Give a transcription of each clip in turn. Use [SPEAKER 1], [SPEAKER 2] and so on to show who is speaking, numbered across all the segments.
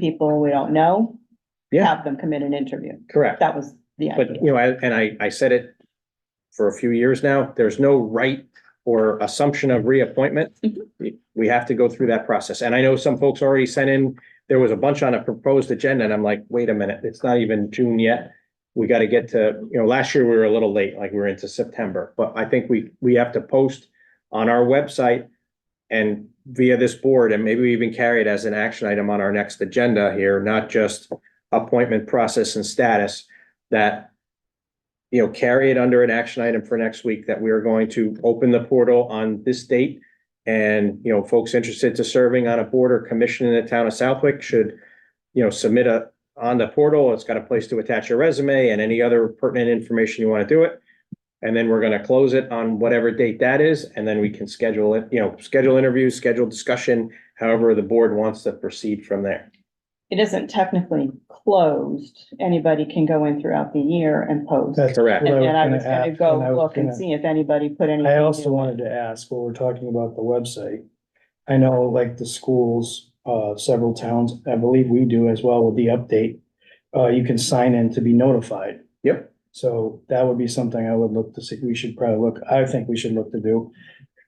[SPEAKER 1] people we don't know,
[SPEAKER 2] Yeah.
[SPEAKER 1] have them come in and interview.
[SPEAKER 2] Correct,
[SPEAKER 1] That was the
[SPEAKER 2] but
[SPEAKER 1] idea.
[SPEAKER 2] you know, I- and I, I said it for a few years now, there's no right or assumption of reappointment.
[SPEAKER 1] Mhm.
[SPEAKER 2] We- We have to go through that process, and I know some folks already sent in, there was a bunch on a proposed agenda, and I'm like, wait a minute, it's not even June yet. We gotta get to, you know, last year we were a little late, like we were into September, but I think we, we have to post on our website and via this board, and maybe we even carry it as an action item on our next agenda here, not just appointment process and status, that you know, carry it under an action item for next week, that we are going to open the portal on this date. And, you know, folks interested to serving on a board or commission in the town of Southwick should, you know, submit a, on the portal, it's got a place to attach your resume and any other pertinent information you want to do it. And then we're gonna close it on whatever date that is, and then we can schedule it, you know, schedule interviews, schedule discussion, however the board wants to proceed from there.
[SPEAKER 1] It isn't technically closed. Anybody can go in throughout the year and post.
[SPEAKER 3] That's
[SPEAKER 2] Correct.
[SPEAKER 1] And
[SPEAKER 3] what
[SPEAKER 1] and I
[SPEAKER 3] gonna
[SPEAKER 1] was gonna
[SPEAKER 3] ask,
[SPEAKER 1] go
[SPEAKER 3] and I was
[SPEAKER 1] look and
[SPEAKER 3] gonna-
[SPEAKER 1] see if anybody put any.
[SPEAKER 3] I also wanted to ask, while we're talking about the website, I know like the schools, uh, several towns, I believe we do as well with the update. Uh, you can sign in to be notified.
[SPEAKER 2] Yep.
[SPEAKER 3] So that would be something I would look to see, we should probably look, I think we should look to do.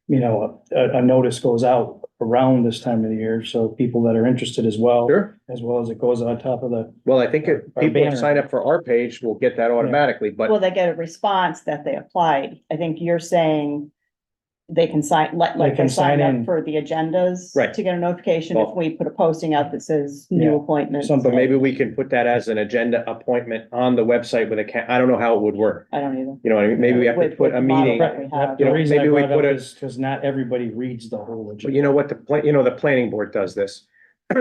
[SPEAKER 3] You know, a, a notice goes out around this time of the year, so people that are interested as well,
[SPEAKER 2] Sure.
[SPEAKER 3] as well as it goes on top of the,
[SPEAKER 2] Well, I think if
[SPEAKER 3] Our
[SPEAKER 2] people
[SPEAKER 3] banner.
[SPEAKER 2] sign up for our page, will get that automatically,
[SPEAKER 1] Well,
[SPEAKER 2] but
[SPEAKER 1] they get a response that they applied. I think you're saying they can sign, like,
[SPEAKER 3] They
[SPEAKER 1] like they
[SPEAKER 3] can
[SPEAKER 1] sign
[SPEAKER 3] sign
[SPEAKER 1] up
[SPEAKER 3] in.
[SPEAKER 1] for the agendas.
[SPEAKER 2] Right.
[SPEAKER 1] To get a notification if
[SPEAKER 2] Well-
[SPEAKER 1] we put a posting out that says new
[SPEAKER 3] Yeah.
[SPEAKER 1] appointments.
[SPEAKER 2] but maybe we can put that as an agenda appointment on the website with a ca- I don't know how it would work.
[SPEAKER 1] I don't either.
[SPEAKER 2] You know what I mean? Maybe we have to
[SPEAKER 1] With-
[SPEAKER 2] put a
[SPEAKER 1] with model.
[SPEAKER 2] meeting,
[SPEAKER 1] Right. we have-
[SPEAKER 3] the
[SPEAKER 2] You know,
[SPEAKER 3] reason I
[SPEAKER 2] maybe we
[SPEAKER 3] brought it
[SPEAKER 2] put
[SPEAKER 3] up
[SPEAKER 2] a-
[SPEAKER 3] is because not everybody reads the whole
[SPEAKER 2] but
[SPEAKER 3] agenda.
[SPEAKER 2] you know what the, pla- you know, the planning board does this.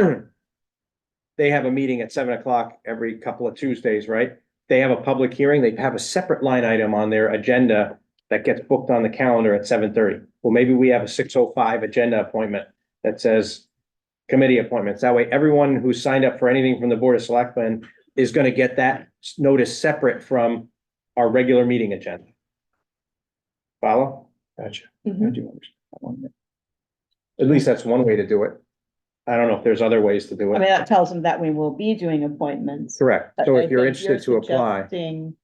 [SPEAKER 2] They have a meeting at seven o'clock every couple of Tuesdays, right? They have a public hearing, they have a separate line item on their agenda that gets booked on the calendar at seven thirty. Well, maybe we have a six oh five agenda appointment that says committee appointments. That way, everyone who signed up for anything from the Board of Selectmen is gonna get that s- notice separate from our regular meeting agenda. Follow?
[SPEAKER 3] Gotcha. I
[SPEAKER 1] Mhm.
[SPEAKER 3] do understand that one.
[SPEAKER 2] At least that's one way to do it. I don't know if there's other ways to do
[SPEAKER 1] I mean,
[SPEAKER 2] it.
[SPEAKER 1] that tells them that we will be doing appointments.
[SPEAKER 2] Correct.
[SPEAKER 1] But
[SPEAKER 2] So
[SPEAKER 1] I
[SPEAKER 2] if you're
[SPEAKER 1] think
[SPEAKER 2] interested to apply,
[SPEAKER 1] suggesting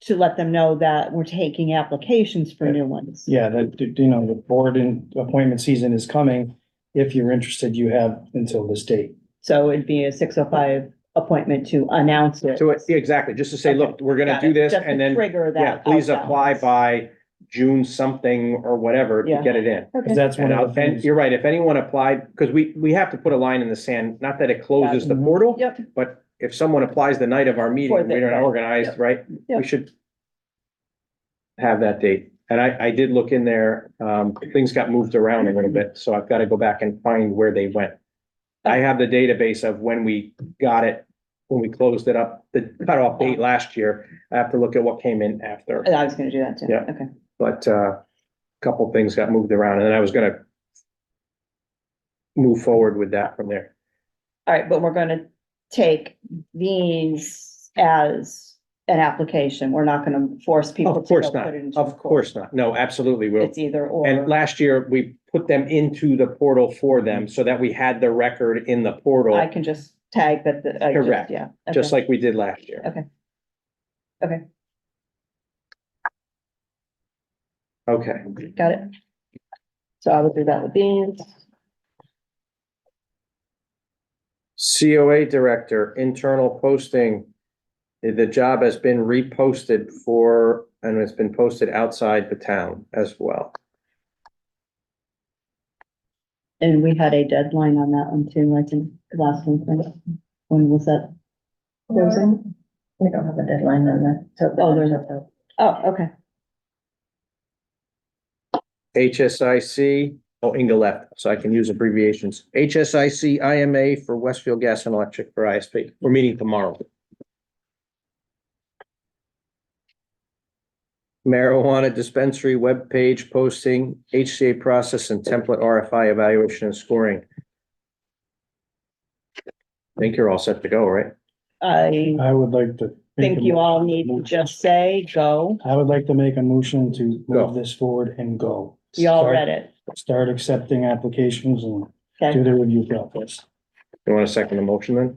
[SPEAKER 1] To let them know that we're taking applications for new ones.
[SPEAKER 3] Yeah, that, you know, the board and appointment season is coming. If you're interested, you have until this date.
[SPEAKER 1] So it'd be a six oh five appointment to announce it.
[SPEAKER 2] to it, yeah, exactly, just to say, look, we're gonna
[SPEAKER 1] Got
[SPEAKER 2] do
[SPEAKER 1] it.
[SPEAKER 2] this
[SPEAKER 1] Just to
[SPEAKER 2] and then,
[SPEAKER 1] Trigger that.
[SPEAKER 2] yeah, please
[SPEAKER 1] outbound.
[SPEAKER 2] apply by June something or whatever to
[SPEAKER 1] Yeah.
[SPEAKER 2] get it in.
[SPEAKER 3] Cause
[SPEAKER 1] Okay.
[SPEAKER 3] that's one
[SPEAKER 2] And
[SPEAKER 3] of
[SPEAKER 2] I'll-
[SPEAKER 3] the
[SPEAKER 2] and
[SPEAKER 3] things.
[SPEAKER 2] you're right, if anyone applied, because we, we have to put a line in the sand, not that it closes the
[SPEAKER 3] Mhm.
[SPEAKER 2] portal,
[SPEAKER 1] Yep,
[SPEAKER 2] but if someone applies the night of our meeting,
[SPEAKER 1] For
[SPEAKER 2] we
[SPEAKER 1] the-
[SPEAKER 2] don't organize,
[SPEAKER 1] Yep.
[SPEAKER 2] right?
[SPEAKER 1] Yep.
[SPEAKER 2] We should have that date. And I, I did look in there, um, things got moved around a little
[SPEAKER 1] Mm-hmm.
[SPEAKER 2] bit, so I've got to go back and find where they went. I have the database of when we got it, when we closed it up, the cutoff date last year. I have to look at what came in after,
[SPEAKER 1] I was gonna do that too.
[SPEAKER 2] Yeah.
[SPEAKER 1] Okay.
[SPEAKER 2] but, uh, a couple things got moved around and then I was gonna move forward with that from there.
[SPEAKER 1] All right, but we're gonna take these as an application. We're not gonna force people.
[SPEAKER 2] Of
[SPEAKER 1] to
[SPEAKER 2] course
[SPEAKER 1] go
[SPEAKER 2] not,
[SPEAKER 1] put it into a
[SPEAKER 2] of course not. No, absolutely, we'll,
[SPEAKER 1] It's either or.
[SPEAKER 2] And last year, we put them into the portal for them so that we had the record in the portal,
[SPEAKER 1] I can just tag that, the- I just-
[SPEAKER 2] Correct.
[SPEAKER 1] yeah.
[SPEAKER 2] just
[SPEAKER 1] okay.
[SPEAKER 2] like we did last year.
[SPEAKER 1] Okay. Okay.
[SPEAKER 2] Okay,
[SPEAKER 1] Got it. So I will do that with these.
[SPEAKER 2] COA Director, internal posting. The job has been reposted for, and it's been posted outside the town as well.
[SPEAKER 1] And we had a deadline on that one too, I think, last one, right? when was that? There was a-
[SPEAKER 4] We don't have a deadline on that, so.
[SPEAKER 1] Oh, there's Oh, okay.
[SPEAKER 2] HSIC, oh, Inga left, so I can use abbreviations. HSIC IMA for Westfield Gas and Electric for ISP. We're meeting tomorrow. Marijuana dispensary webpage posting, HCA process and template RFI evaluation and scoring. I Think you're all set to go, right?
[SPEAKER 1] I
[SPEAKER 3] I would like to. make
[SPEAKER 1] think
[SPEAKER 3] a
[SPEAKER 1] you
[SPEAKER 3] mo-
[SPEAKER 1] all need to just say, go.
[SPEAKER 3] I would like to make a motion to
[SPEAKER 2] Go.
[SPEAKER 3] move this forward and go.
[SPEAKER 1] We all
[SPEAKER 3] Start-
[SPEAKER 1] read it.
[SPEAKER 3] Start accepting applications and do
[SPEAKER 1] Okay,
[SPEAKER 3] the review process.
[SPEAKER 2] You want to second the motion then?